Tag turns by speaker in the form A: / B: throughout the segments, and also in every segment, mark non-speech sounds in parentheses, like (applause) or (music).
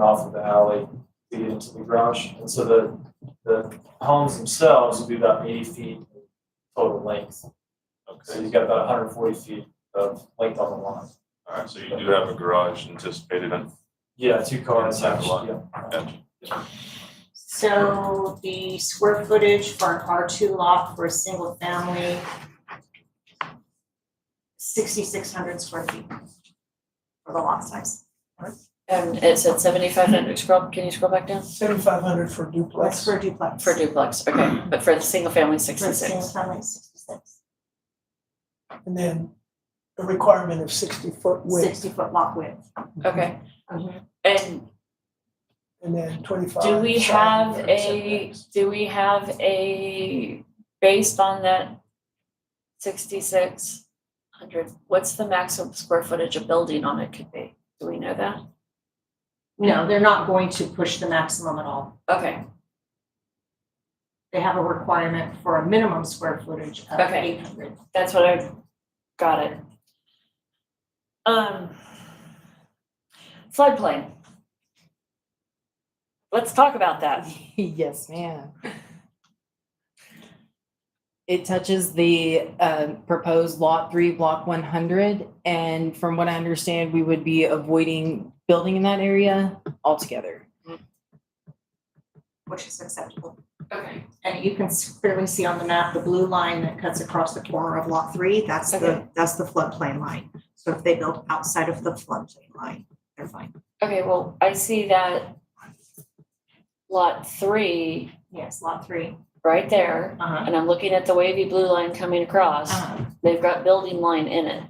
A: off of the alley, feed into the garage. And so the, the homes themselves will be about eighty feet total length. So
B: Okay,
A: you've got about hundred forty feet of length on the line.
B: all right, so you do have a garage anticipated and
A: Yeah, two cars
B: Inside the lot.
A: actually, yeah.
C: So the square footage for an R two lot for a single family, sixty-six hundred square feet for the lot size.
D: And it said seventy-five hundred, scroll, can you scroll back down?
E: Seventy-five hundred for
C: That's
E: duplex.
C: for a duplex.
D: For duplex, okay, but for the single family,
C: Mm-hmm. For a single
D: sixty-six.
C: family, sixty-six,
E: And then a requirement of sixty foot width
C: sixty foot lot width.
D: Okay, Mm-hmm.
C: Mhm.
D: and
E: and then twenty-five.
D: do we
E: side
D: have
E: yard
D: a,
E: setbacks.
D: do we have a, based on that sixty-six hundred, what's the maximum square footage a building on it could be? Do we know that?
C: No, they're not going to push the maximum at all.
D: Okay,
C: They have a requirement for a minimum square footage of
D: Okay.
C: eight hundred.
D: that's what I, got it. Um, floodplain. Let's talk about that.
F: (laughs) Yes, ma'am. It touches the um, proposed Lot 3, Block 100, and from what I understand, we would be avoiding building in that area altogether.
C: which is acceptable.
D: Okay.
C: And you can s- clearly see on the map, the blue line that cuts across the corner of lot three, that's the,
D: Okay.
C: that's the floodplain line. So if they build outside of the floodplain line, they're fine.
D: Okay, well, I see that lot three
C: Yes, lot three.
D: right there,
C: Uh-huh.
D: and I'm looking at the wavy blue line coming across.
C: Uh-huh.
D: They've got building line in it.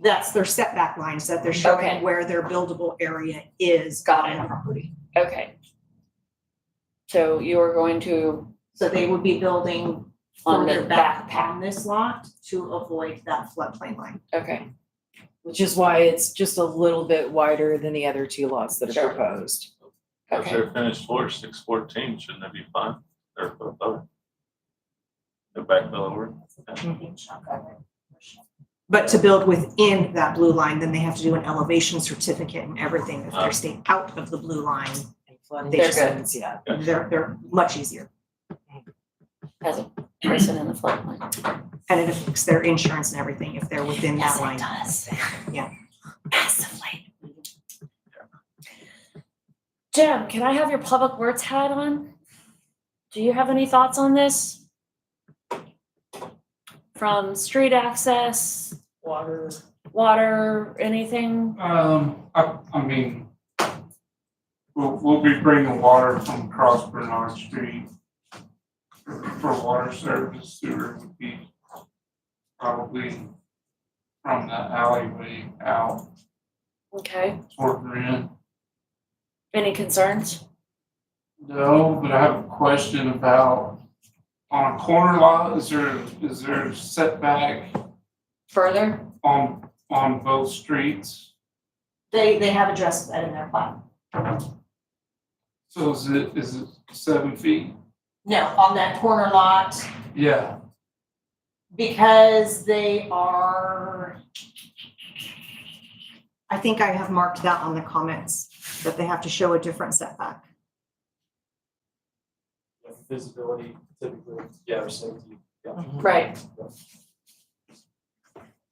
C: That's their setback lines that they're
D: Okay.
C: showing where their buildable area is
D: Got
C: on the
D: it.
C: property.
D: Okay. So you are going to,
C: So they would be building
D: On the
C: further back on this lot to avoid that floodplain line.
D: okay,
F: Which is why it's just a little bit wider than the other two lots that
D: Sure.
F: are proposed.
B: if
D: okay,
B: they're finished floor, six fourteen, shouldn't that be fine? Or above? The back bill over.
C: But to build within that blue line, then they have to do an elevation certificate and everything. If
B: Ah.
C: they're staying out of the blue line,
F: And flooding
C: They're
F: concerns, yeah.
B: Gotcha.
C: they're, they're much easier.
D: has a person in the floodplain.
C: And it affects their insurance and everything if they're within that line.
D: does.
C: Yeah.
D: Massively. Jim, can I have your public words hat on? Do you have any thoughts on this? From street access,
E: Water,
D: water, anything?
G: Um, I, I mean, we'll, we'll be bringing water from across Bernard Street for water service, sewer would be probably from the alleyway out
D: Okay,
G: toward Marin.
D: any concerns?
G: No, but I have a question about, on a corner lot, is there, is there setback
D: Further?
G: on, on both streets?
C: They, they have addressed that in their plan.
G: So is it, is it seven feet?
C: No, on that corner lot,
G: Yeah,
C: because they are. I think I have marked that on the comments, that they have to show a different setback.
A: Yeah, Visibility typically, yeah, or safety, yeah.
D: Right.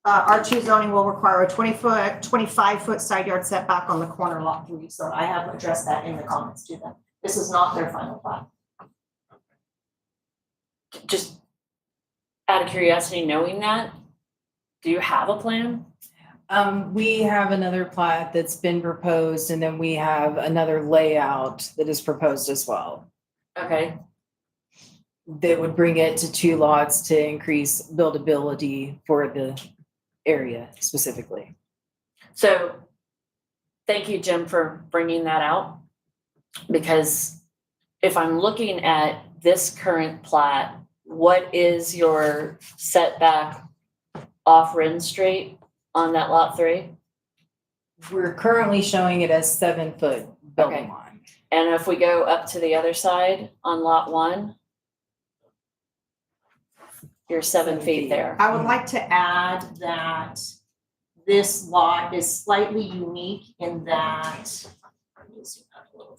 C: Uh, R two zoning will require a twenty foot, twenty-five foot side yard setback on the corner lot three, so I have addressed that in the comments to them. This is not their final plat.
D: Just out of curiosity, knowing that, do you have a plan?
F: Um, we have another plat that's been proposed, and then we have another layout that is proposed as well.
D: Okay,
F: that would bring it to two lots to increase buildability for the area specifically.
D: so thank you, Jim, for bringing that out. Because if I'm looking at this current plat, what is your setback off Ren Street on that lot three?
F: We're currently showing it as seven foot
D: Okay.
F: building line.
D: And if we go up to the other side on lot one, you're seven
F: Seven
D: feet
F: feet.
D: there.
C: I would like to add that this lot is slightly unique in that